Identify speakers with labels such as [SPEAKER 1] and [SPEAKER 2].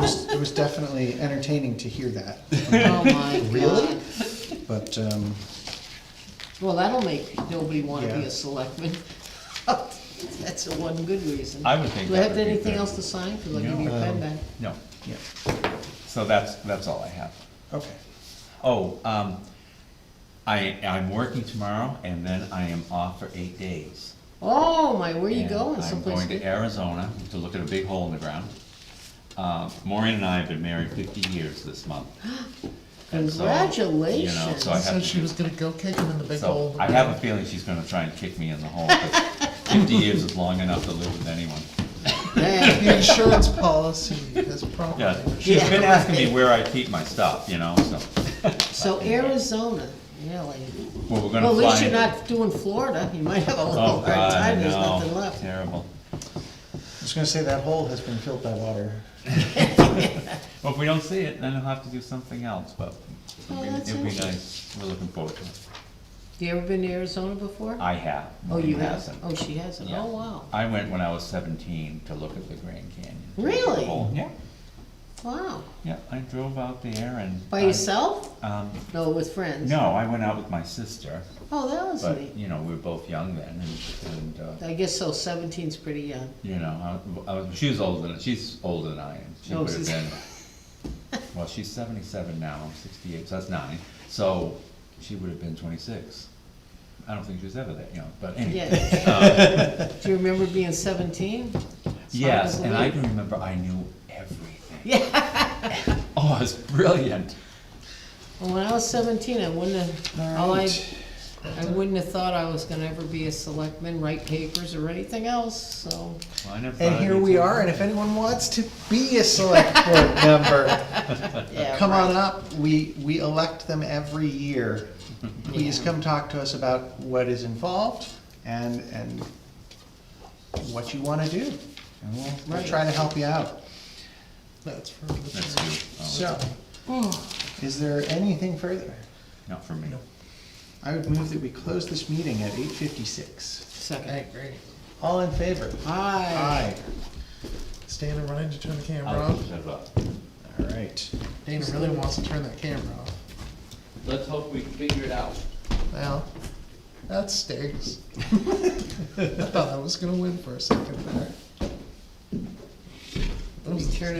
[SPEAKER 1] was, it was definitely entertaining to hear that,
[SPEAKER 2] Oh, my
[SPEAKER 1] Really?
[SPEAKER 2] God.
[SPEAKER 1] but, um,
[SPEAKER 2] Well, that'll make nobody wanna be
[SPEAKER 1] Yeah.
[SPEAKER 2] a selectman. That's the one good reason.
[SPEAKER 3] I would think
[SPEAKER 2] Do I
[SPEAKER 3] that
[SPEAKER 2] have
[SPEAKER 3] would be
[SPEAKER 2] anything
[SPEAKER 3] fair.
[SPEAKER 2] else to sign? Cause I'll give you a
[SPEAKER 1] No.
[SPEAKER 2] pen
[SPEAKER 1] Um,
[SPEAKER 2] back.
[SPEAKER 3] No,
[SPEAKER 1] yeah,
[SPEAKER 3] so that's, that's all I have.
[SPEAKER 1] okay.
[SPEAKER 3] Oh, um, I, I'm working tomorrow and then I am off for eight days.
[SPEAKER 2] Oh, my, where you
[SPEAKER 3] And
[SPEAKER 2] going? Someplace
[SPEAKER 3] I'm going
[SPEAKER 2] good?
[SPEAKER 3] to Arizona to look at a big hole in the ground. Uh, Maureen and I have been married fifty years this month. And so, you know, So I
[SPEAKER 2] Congratulations.
[SPEAKER 3] have
[SPEAKER 4] Said
[SPEAKER 3] to
[SPEAKER 4] she
[SPEAKER 3] do-
[SPEAKER 4] was gonna go kick him in the big hole.
[SPEAKER 3] So
[SPEAKER 4] in the
[SPEAKER 3] I have a
[SPEAKER 4] ground.
[SPEAKER 3] feeling she's gonna try and kick me in the hole, but fifty years is long enough to live with anyone.
[SPEAKER 2] Yeah.
[SPEAKER 4] The insurance policy is probably.
[SPEAKER 3] Yeah,
[SPEAKER 4] what she-
[SPEAKER 3] she's
[SPEAKER 2] Yeah.
[SPEAKER 3] been asking me where I keep my stuff, you know, so,
[SPEAKER 2] So Arizona, really.
[SPEAKER 3] well, we're gonna
[SPEAKER 2] Well, at
[SPEAKER 3] fly.
[SPEAKER 2] least you're
[SPEAKER 3] into-
[SPEAKER 2] not doing Florida. You might have a little
[SPEAKER 3] Oh,
[SPEAKER 2] hard
[SPEAKER 3] God, I
[SPEAKER 2] time. There's
[SPEAKER 3] know.
[SPEAKER 2] nothing left.
[SPEAKER 3] Terrible.
[SPEAKER 1] I was gonna say, that hole has been filled by water.
[SPEAKER 3] Well, if we don't see it, then we'll have to do something else, but
[SPEAKER 2] Oh,
[SPEAKER 3] it'd
[SPEAKER 2] that's
[SPEAKER 3] be- it'd be
[SPEAKER 2] interesting.
[SPEAKER 3] nice, we're looking forward to it.
[SPEAKER 2] You ever been to Arizona before?
[SPEAKER 3] I have.
[SPEAKER 2] Oh,
[SPEAKER 3] Maureen
[SPEAKER 2] you have?
[SPEAKER 3] hasn't.
[SPEAKER 2] Oh, she hasn't.
[SPEAKER 3] Yeah.
[SPEAKER 2] Oh, wow.
[SPEAKER 3] I went when I was seventeen to look at the Grand Canyon.
[SPEAKER 2] Really?
[SPEAKER 3] Oh, Yeah,
[SPEAKER 2] Wow.
[SPEAKER 3] yeah, I drove out there and.
[SPEAKER 2] By
[SPEAKER 3] I-
[SPEAKER 2] yourself?
[SPEAKER 3] Um,
[SPEAKER 2] No, with friends?
[SPEAKER 3] no, I went out with my sister,
[SPEAKER 2] Oh, that was
[SPEAKER 3] but,
[SPEAKER 2] neat.
[SPEAKER 3] you know, we were both young then and, and, uh,
[SPEAKER 2] I guess so. Seventeen's pretty young.
[SPEAKER 3] you know, I, I was, she was older than, she's older than I am. She
[SPEAKER 2] Oh,
[SPEAKER 3] would have
[SPEAKER 2] she's-
[SPEAKER 3] been, well, she's seventy-seven now, I'm sixty-eight, so that's nine, so she would have been twenty-six. I don't think she was ever that young, but anyway. Uh,
[SPEAKER 2] Yeah. Do you remember being seventeen?
[SPEAKER 3] Yes, and I
[SPEAKER 2] believe.
[SPEAKER 3] can remember I knew everything. Yeah. Oh, it's brilliant.
[SPEAKER 2] Well, when I was seventeen, I wouldn't have, all I,
[SPEAKER 1] Alright.
[SPEAKER 2] I wouldn't have thought I was gonna ever be a selectman, write papers or anything else, so.
[SPEAKER 3] Well, I never thought
[SPEAKER 1] And
[SPEAKER 3] I'd
[SPEAKER 1] here
[SPEAKER 3] be
[SPEAKER 1] we
[SPEAKER 3] so-
[SPEAKER 1] are, and if anyone wants to be a select board member,
[SPEAKER 2] yeah,
[SPEAKER 1] come on
[SPEAKER 2] right.
[SPEAKER 1] up, we, we elect them every year. Please
[SPEAKER 2] Yeah.
[SPEAKER 1] come talk to us about what is involved and, and what you wanna do. And we'll, we'll
[SPEAKER 2] Right.
[SPEAKER 1] try to help you out.
[SPEAKER 4] That's for the.
[SPEAKER 3] That's you. Oh,
[SPEAKER 1] So, is there anything further?
[SPEAKER 3] not for me.
[SPEAKER 1] I would move that we close this meeting at eight fifty-six.
[SPEAKER 2] Second.
[SPEAKER 4] Hey, great.
[SPEAKER 1] All in favor?
[SPEAKER 2] Aye.
[SPEAKER 1] Aye.
[SPEAKER 4] Stand in line to turn the camera
[SPEAKER 3] I'll
[SPEAKER 4] off.
[SPEAKER 3] shut up.
[SPEAKER 1] All right.
[SPEAKER 4] Dana really wants to turn that camera off.
[SPEAKER 5] Let's hope we figure it out.
[SPEAKER 4] Well, that stinks. I thought I was gonna win for a second there.